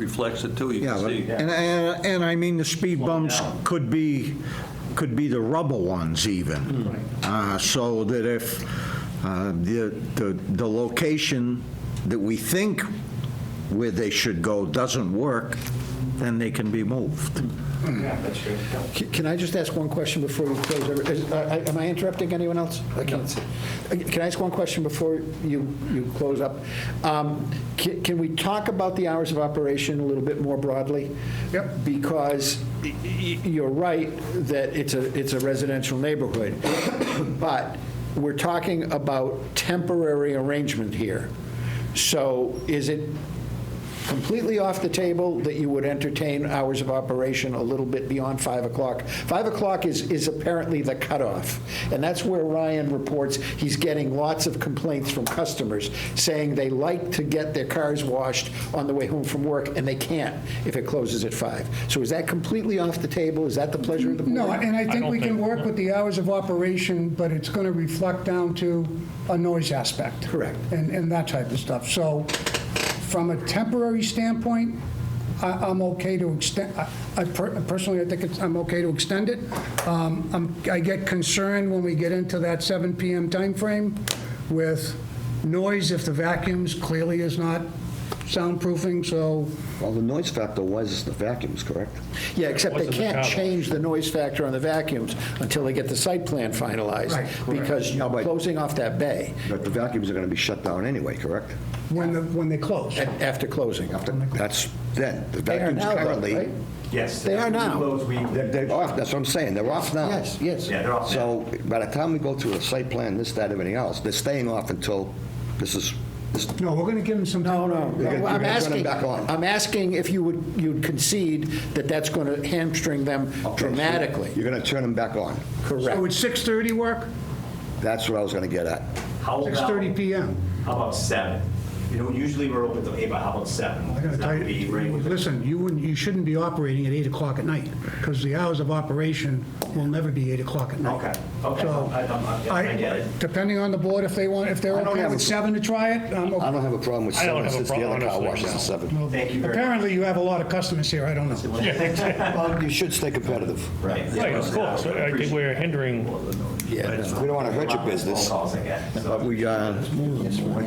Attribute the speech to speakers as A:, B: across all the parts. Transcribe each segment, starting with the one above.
A: reflects it too, you
B: Yeah,
A: can
B: but-
A: see.
B: and, and and I mean, the speed bumps could be, could be the rubber ones even. Uh, So that if uh, the, the, the location that we think where they should go doesn't work, then they can be moved.
C: Hmm.
D: Yeah, that's true.
E: Can can I just ask one question before we close? Every- is- I- I- Am I interrupting anyone else? I can't see. Uh, Can I ask one question before you, you close up? Um, ca- Can we talk about the hours of operation a little bit more broadly? Yep. Because y- y- you're right that it's a, it's a residential neighborhood, but we're talking about temporary arrangement here. So is it completely off the table that you would entertain hours of operation a little bit beyond 5 o'clock. 5 o'clock is, is apparently the cutoff, and that's where Ryan reports he's getting lots of complaints from customers saying they like to get their cars washed on the way home from work, and they can't if it closes at 5. So is that completely off the table? Is that the pleasure of the board?
F: No, and I think we can work with the hours of operation, but it's going to reflect down to a noise aspect.
E: Correct.
F: And, and that type of stuff. So from a temporary standpoint, I, I'm okay to extend, I- I per- personally, I think it's, I'm okay to extend it. Um, I'm, I get concerned when we get into that 7 PM timeframe with noise if the vacuums clearly is not soundproofing, so
C: Well, the noise factor was the vacuums, correct?
E: Yeah, except they
G: Wasn't the
E: can't
G: cutoff.
E: change the noise factor on the vacuums until they get the site plan finalized.
F: Right,
E: Because you're
C: but-
E: closing off that bay
C: But the vacuums are going to be shut down anyway, correct?
F: when, the- when they close.
E: at- after closing.
C: That's then. The
E: They are
C: vacuums
E: now, though,
C: currently,
E: right?
D: Yes.
E: They oh, are now.
D: Those we-
C: they're they're off, that's what I'm saying, they're off now.
E: Yes, yes.
D: Yeah, they're off now.
C: So by the time we go through the site plan, this, that, everything else, they're staying off until this is, this-
F: No, we're going to give them some time. No,
C: You're gonna-
E: Well,
C: you're
E: I'm
C: gonna turn them
E: asking,
C: back on.
E: I'm asking if you would, you'd concede that that's going to hamstring them dramatically.
C: you're going to turn them back on.
F: So
E: Correct.
F: would 6:30 work?
C: That's what I was going to get at.
D: How about-
F: 6:30 PM.
D: How about seven? You know, usually we're open till eight, but how about seven?
F: I gotta
D: That
F: tell
D: would be right
F: you,
D: with the-
F: listen, you wouldn't, you shouldn't be operating at 8 o'clock at night, because the hours of operation will never be 8 o'clock at night.
D: Okay, okay,
F: So,
D: I- I'm- I- I get it.
F: Depending on the board, if they want, if they're
C: I don't
F: okay
C: have
F: with
C: a-
F: 7 to try it, I'm
C: I
F: okay.
C: don't have a problem with
G: I
C: seven
G: don't have a
C: since the other
G: problem,
C: car
G: honestly,
C: washes
G: no.
C: at seven.
D: Thank you very much.
F: Apparently, you have a lot of customers here, I don't know.
C: Well, you should stay competitive.
D: Right.
G: Right, of course. I think we're hindering
C: We don't want to hurt your business.
D: Phone calls I get, so.
C: But we, uh,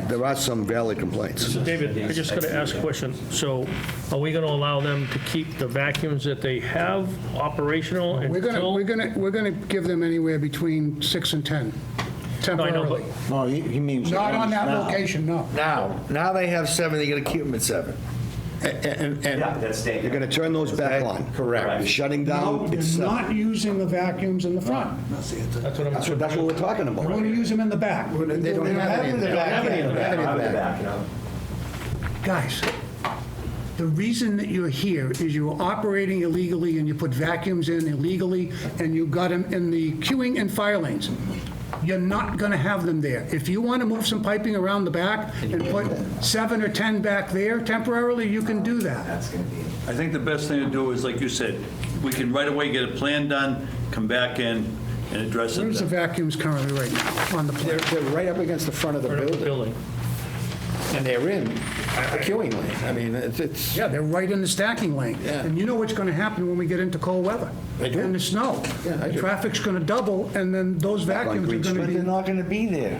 C: there are some valid complaints.
G: So David, I just got to ask a question. So are we going to allow them to keep the vacuums that they have operational
F: We're going to,
G: until?
F: we're going to, we're going to give them anywhere between 6 and 10,
G: I know,
F: temporarily.
G: but-
B: No, he he means. the
F: Not on
B: ones
F: that
B: now.
F: location, no.
H: Now, now they have seven, you're gonna keep them at seven.
E: And, and-
D: Yeah, that's
C: You're
D: staying.
C: going to turn those back on.
E: correct.
C: You're shutting
F: No,
C: down,
F: they're
C: it's seven.
F: not using the vacuums in the front.
G: That's what I'm,
C: That's what, that's what we're talking
F: We're going
C: about.
F: to use them in the back.
E: They don't have any in the back. They don't have any in the back.
D: you know.
F: Guys, the reason that you're here is you were operating illegally and you put vacuums in illegally and you got them in the queuing and fire lanes. You're not going to have them there. If you want to move some piping around the back and put seven or 10 back there temporarily, you can do that.
D: That's going to be.
A: I think the best thing to do is, like you said, we can right away get a plan done, come back in and address it
F: Where's the
A: then.
F: vacuums currently right now on the
E: They're,
F: plan?
E: they're right up against the front of the
G: the
E: building,
G: building.
E: and they're in a queuing lane. I mean, it's- it's,
F: Yeah, they're right in the stacking lane.
E: Yeah.
F: And you know what's going to happen when we get into cold weather?
E: I do.
F: And the snow.
E: Yeah, I do.
F: Traffic's going to double and then those vacuums are
C: Green
F: going to
C: Street.
F: be.
H: They're not gonna be there.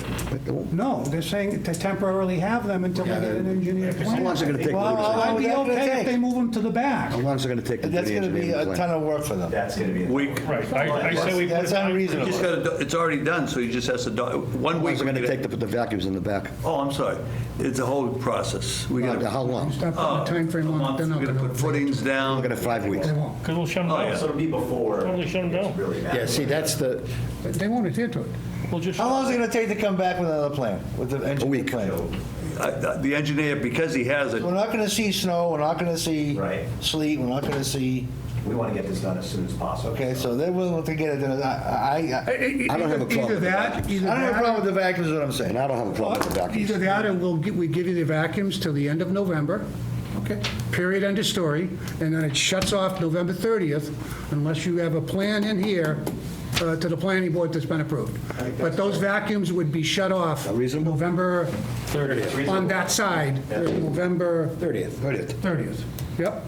F: No, they're saying to temporarily have them until we get an engineered
C: How
F: plan.
C: long's it going to take?
H: Well,
C: How
F: I'd be
H: How long is that gonna
F: okay if
H: take?
F: they move them to the back.
C: long's it going to take? to do
H: That's
C: the
H: gonna be
C: engineering
H: a
C: plan?
H: ton of work for them.
D: That's going to be.
A: Week,
G: Right, I I say we put
H: That's
G: it on-
A: You just
H: unreasonable.
A: gotta, do- it's already done, so you just has to, do- one
C: How
A: week.
C: long's it going
A: we get
C: to take to put the vacuums in the back?
A: Oh, I'm sorry, it's a whole process. We gotta-
C: How long?
F: Stop
A: Oh,
F: putting a timeframe
A: A
F: on it,
A: month,
F: they're not
A: We're
F: going
A: gonna put
F: to.
A: footings down.
C: Look at it, five weeks.
F: They won't.
G: Because we'll shut them
A: Oh, yeah.
G: down.
D: So it'll be before.
G: Totally shut 'em
D: it's
G: down.
D: Really bad.
E: yeah, see, that's the,
F: They won't adhere to it.
G: We'll just,
H: How long is it gonna take to come back with another plan, with the engineering plan?
A: I- I- The engineer, because he has it,
H: We're not gonna see snow, we're not gonna see
D: Right.
H: sleet, we're not gonna see,
D: We want to get this done as soon as possible.
H: okay, so they're willing to get it, done. I, I, I
F: I
C: don't have a problem
F: Either
C: with the
F: that, either
H: I don't have a
F: that,
H: problem with the vacuums, is what I'm
C: And
H: saying.
C: I don't have a problem with the vacuums.
F: either that, or we'll, gi- we give you the vacuums till the end of November. Okay. Period, end of story, and then it shuts off November 30th unless you have a plan in here uh, to the planning board that's been approved. But those vacuums would be shut off.
C: reasonable?
F: November,
D: It's reasonable.
F: on that side, November
E: 30th.
F: 30th. Yep.